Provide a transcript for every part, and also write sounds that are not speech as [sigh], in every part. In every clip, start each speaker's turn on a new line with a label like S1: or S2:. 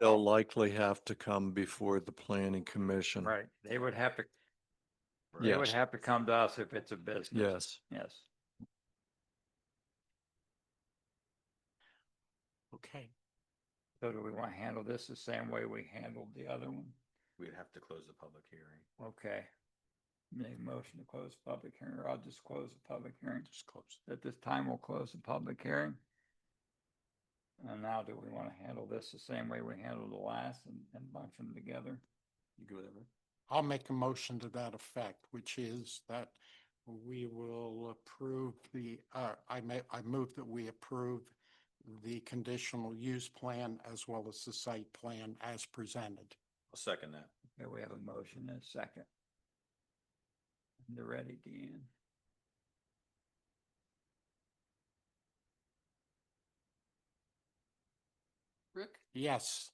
S1: They'll likely have to come before the planning commission.
S2: Right, they would have to, they would
S1: Yes,
S2: have to come to us if it's a business.
S1: yes.
S2: Yes.
S3: Okay,
S2: So do we want to handle this the same way we handled the other one?
S4: We'd have to close the public hearing.
S2: Okay. Make a motion to close the public hearing, or I'll just close the public hearing.
S3: just close.
S2: At this time, we'll close the public hearing. And now do we want to handle this the same way we handled the last and, and bunch them together?
S4: You go there.
S3: I'll make a motion to that effect, which is that we will approve the, uh, I may, I move that we approve the conditional use plan as well as the site plan as presented.
S4: I'll second that.
S2: Okay, we have a motion and a second. They're ready, Deanne.
S5: Rick,
S3: Yes,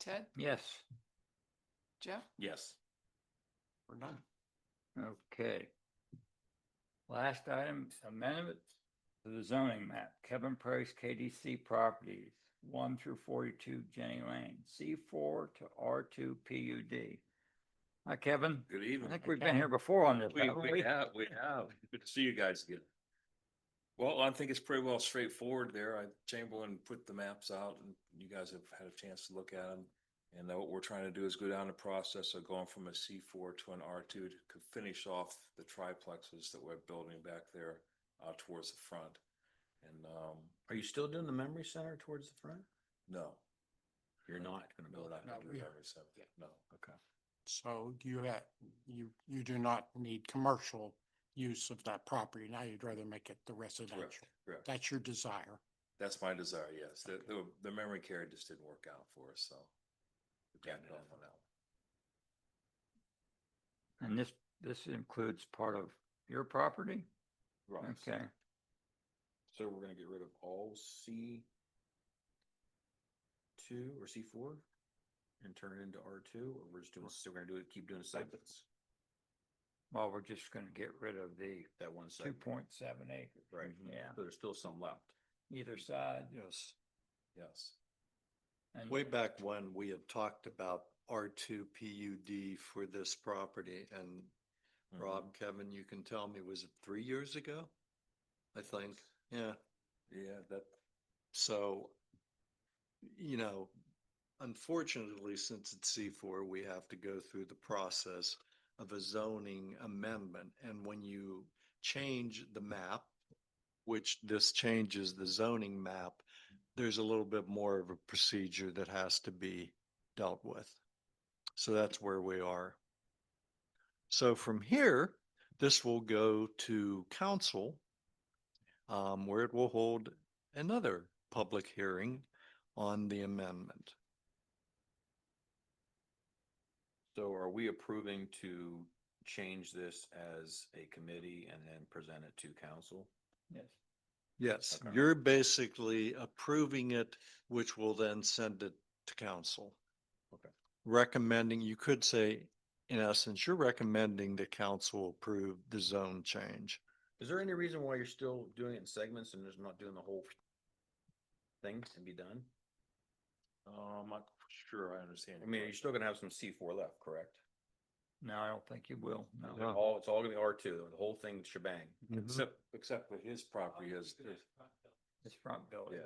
S5: Ted,
S2: Yes,
S5: Jeff?
S4: Yes.
S3: we're done.
S2: okay. Last item, amendment to the zoning map, Kevin Price KDC Properties, one through forty-two Jenny Lane, C four to R two PUD. Hi, Kevin.
S4: Good
S2: I
S4: evening.
S2: think we've been here before on [laughs] this.
S4: We,
S2: haven't
S4: we have, we have. Good to see you guys again. Well, I think it's pretty well straightforward there. I, Chamberlain put the maps out and you guys have had a chance to look at them. And now what we're trying to do is go down the process of going from a C four to an R two to c- finish off the triplexes that we're building back there uh, towards the front. And, um,
S6: Are you still doing the memory center towards the front?
S4: no.
S6: You're not gonna
S4: No,
S6: build
S4: not
S6: that.
S4: gonna
S3: No,
S4: do
S3: we-
S4: that, so, no.
S6: Okay.
S3: So you have, you, you do not need commercial use of that property. Now you'd rather make it the residential.
S4: correct.
S3: That's your desire.
S4: That's my desire, yes. The,
S3: Okay.
S4: the, the memory care just didn't work out for us, so. we got it off on that one.
S2: And this, this includes part of your property? Okay,
S6: So we're gonna get rid of all C two or C four and turn it into R two, or we're just doing, so we're gonna do it, keep doing segments,
S2: well, we're just gonna get rid of the
S6: that one
S2: two
S6: segment.
S2: point seven acres.
S6: Right,
S2: Yeah,
S6: so there's still some left.
S2: either side.
S1: Yes.
S4: Yes.
S2: and-
S1: Way back when, we had talked about R two PUD for this property and
S2: Mm-hmm.
S1: Rob, Kevin, you can tell me, was it three years ago? I think, yeah.
S4: Yeah, that,
S1: So, you know, unfortunately, since it's C four, we have to go through the process of a zoning amendment. And when you change the map, which this changes the zoning map, there's a little bit more of a procedure that has to be dealt with. So that's where we are. So from here, this will go to council, um, where it will hold another public hearing on the amendment.
S6: So are we approving to change this as a committee and then present it to council?
S2: Yes,
S1: Yes,
S6: Okay.
S1: you're basically approving it, which will then send it to council.
S6: Okay.
S1: Recommending, you could say, in essence, you're recommending that council approve the zone change.
S6: Is there any reason why you're still doing it in segments and just not doing the whole thing and be done?
S4: uh, I'm not sure I understand.
S6: I
S4: your
S6: mean, you're
S4: question.
S6: still gonna have some C four left, correct?
S2: no, I don't think you will,
S6: It's
S1: Uh-huh.
S2: no.
S6: All, it's all gonna be R two, the whole thing shebang.
S1: Mm-hmm.
S4: Except, except for his property is, is-
S2: This front building.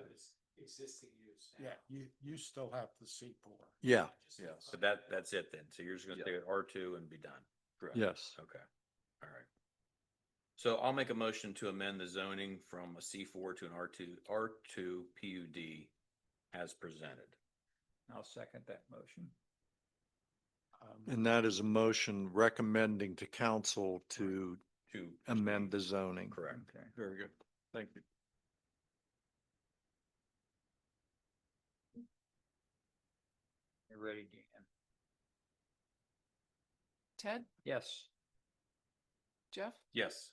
S3: Yeah, you, you still have the C four.
S1: Yeah,
S4: yes.
S6: So that, that's it then. So you're just gonna
S4: Yeah.
S6: stay at R two and be done. Correct.
S1: yes,
S6: Okay, all right. So I'll make a motion to amend the zoning from a C four to an R two, R two PUD as presented.
S2: I'll second that motion.
S3: Um,
S1: and that is a motion recommending to council to
S6: To
S1: amend the zoning.
S6: Correct.
S2: Okay.
S1: Very good, thank you.
S2: You ready, Dan?
S5: Ted,
S2: Yes,
S5: Jeff,
S4: Yes.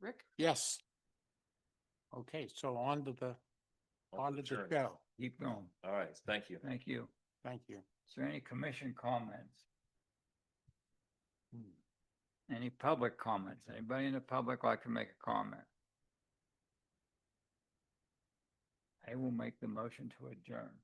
S5: Rick?
S3: Yes. Okay, so on to the, on to the
S4: Sure.
S3: show.
S2: keep going.
S4: All right, thank you.
S2: Thank you.
S3: Thank you.
S2: Is there any commission comments? Any public comments? Anybody in the public like to make a comment? I will make the motion to adjourn.